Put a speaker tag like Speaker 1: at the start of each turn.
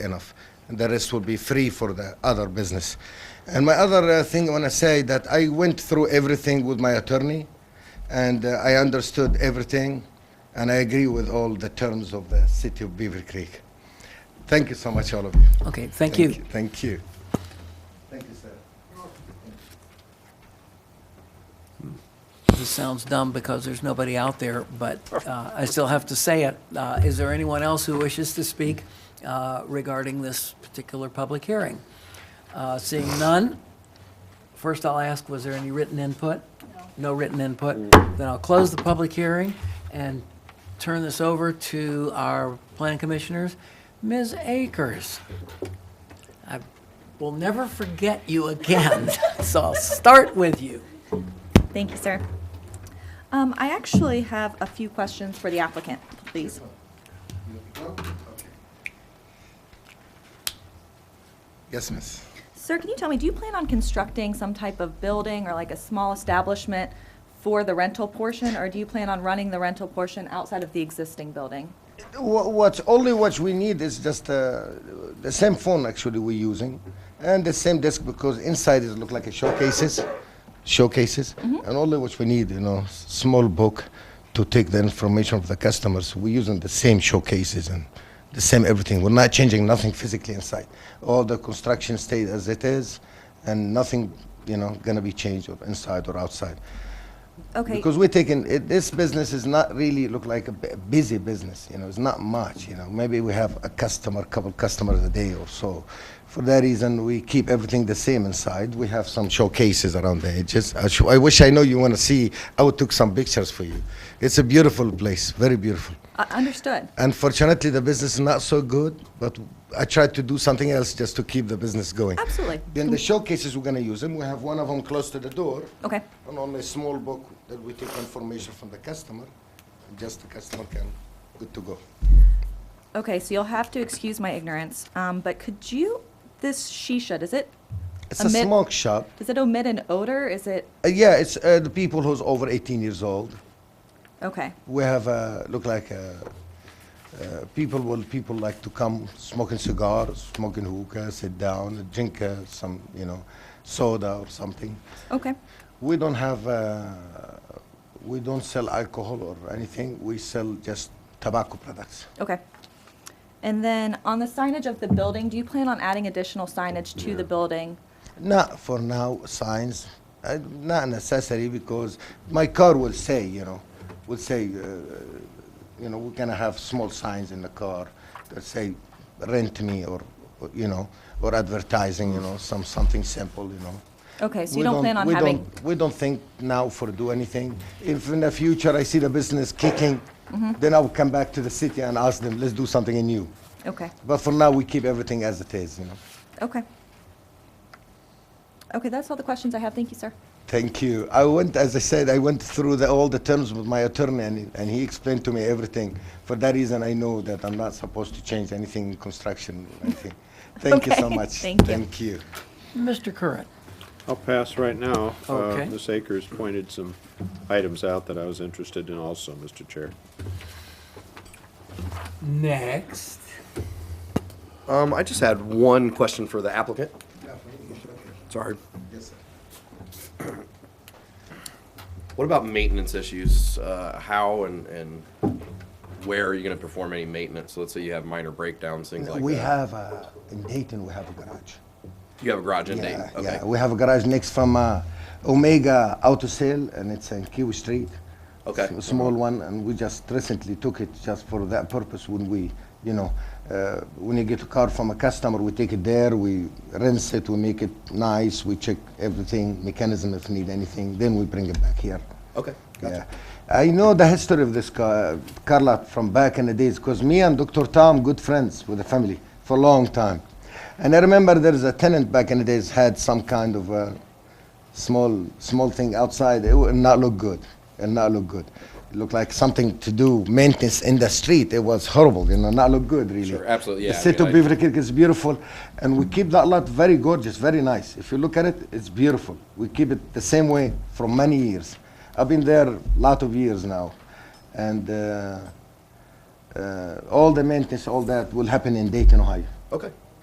Speaker 1: enough. And the rest will be free for the other business. And my other uh, thing I want to say that I went through everything with my attorney, and uh, I understood everything, and I agree with all the terms of the city of Beaver Creek. Thank you so much, all of you.
Speaker 2: Okay, thank you.
Speaker 1: Thank you. Thank you, sir.
Speaker 2: This sounds dumb because there's nobody out there, but uh, I still have to say it. Uh, Is there anyone else who wishes to speak uh, regarding this particular public hearing? Uh, Seeing none, first I'll ask, was there any written input? No written input. Then I'll close the public hearing and turn this over to our plan commissioners. Ms. Akers, I will never forget you again, so I'll start with you.
Speaker 3: Thank you, sir. Um, I actually have a few questions for the applicant, please.
Speaker 1: Yes, miss.
Speaker 3: Sir, can you tell me, do you plan on constructing some type of building or like a small establishment for the rental portion, or do you plan on running the rental portion outside of the existing building?
Speaker 1: Wha- What only what we need is just uh, the same phone actually we're using, and the same desk because inside it look like a showcases, showcases, and only what we need, you know, s- small book to take the information of the customers. We're using the same showcases and the same everything. We're not changing nothing physically inside. All the construction stayed as it is, and nothing, you know, gonna be changed or inside or outside.
Speaker 3: Okay,
Speaker 1: Because we're taking, it, this business is not really look like a bu- busy business, you know, it's not much, you know. Maybe we have a customer, couple customers a day or so. For that reason, we keep everything the same inside. We have some showcases around the edges. I, sh- I wish I know you want to see. I would took some pictures for you. It's a beautiful place, very beautiful.
Speaker 3: uh, understood.
Speaker 1: Unfortunately, the business is not so good, but I tried to do something else just to keep the business going.
Speaker 3: Absolutely.
Speaker 1: Then the showcases, we're going to use them. We have one of them close to the door
Speaker 3: Okay,
Speaker 1: and on a small book that we take information from the customer, and just the customer can, good to go.
Speaker 3: okay, so you'll have to excuse my ignorance, um, but could you, this shisha, does it,
Speaker 1: It's
Speaker 3: A
Speaker 1: a
Speaker 3: mid-
Speaker 1: smoke shop.
Speaker 3: does it omit an odor? Is it,
Speaker 1: Uh, yeah, it's uh, the people who's over 18 years old.
Speaker 3: okay,
Speaker 1: We have uh, look like uh, uh, people. Well, people like to come smoking cigars, smoking hookah, sit down, drink uh, some, you know, soda or something.
Speaker 3: okay,
Speaker 1: We don't have, uh, we don't sell alcohol or anything. We sell just tobacco products.
Speaker 3: okay. And then on the signage of the building, do you plan on adding additional signage to the building?
Speaker 1: Not for now, signs. Uh, not necessary because my car will say, you know, will say, uh, you know, we're gonna have small signs in the car that say, rent me or, or, you know, or advertising, you know, some something simple, you know.
Speaker 3: Okay, so
Speaker 1: We
Speaker 3: you don't plan on
Speaker 1: we
Speaker 3: having,
Speaker 1: don't- We don't think now for do anything. If in the future I see the business kicking,
Speaker 3: Mm-hmm.
Speaker 1: then I'll come back to the city and ask them, let's do something new.
Speaker 3: okay,
Speaker 1: But for now, we keep everything as it is, you know.
Speaker 3: okay. Okay, that's all the questions I have. Thank you, sir.
Speaker 1: Thank you. I went, as I said, I went through the, all the terms with my attorney, and, and he explained to me everything. For that reason, I know that I'm not supposed to change anything in construction or anything. Thank you so
Speaker 3: Okay,
Speaker 1: much.
Speaker 3: thank you.
Speaker 1: Thank you.
Speaker 2: Mr. Curran.
Speaker 4: I'll pass right now. Uh,
Speaker 2: Okay.
Speaker 4: Ms. Akers pointed some items out that I was interested in also, Mr. Chair.
Speaker 2: Next.
Speaker 5: Um, I just had one question for the applicant. Sorry. What about maintenance issues? Uh, how and, and where are you gonna perform any maintenance? Let's say you have minor breakdowns, things like that.
Speaker 1: we have, uh, in Dayton, we have a garage.
Speaker 5: You have a garage in Dayton?
Speaker 1: Yeah,
Speaker 5: Okay.
Speaker 1: yeah. We have a garage next from uh, Omega Auto Sale, and it's in Kiwi Street.
Speaker 5: Okay.
Speaker 1: S- small one, and we just recently took it just for that purpose. When we, you know, uh, when you get a car from a customer, we take it there, we rinse it, we make it nice, we check everything, mechanism if need anything, then we bring it back here.
Speaker 5: Okay,
Speaker 1: Yeah. I know the history of this car, Carla from back in the days because me and Dr. Tom good friends with the family for a long time. And I remember there's a tenant back in the days had some kind of a small small thing outside. It would not look good. It not look good. It looked like something to do maintenance in the street. It was horrible, you know, not look good really.
Speaker 5: Sure, absolutely,
Speaker 1: The
Speaker 5: yeah, I
Speaker 1: city of
Speaker 5: mean, I-
Speaker 1: Beaver Creek is beautiful and we keep that lot very gorgeous, very nice. If you look at it, it's beautiful. We keep it the same way for many years. I've been there a lot of years now. And uh, uh, all the maintenance, all that will happen in Dayton, Ohio.
Speaker 5: Okay.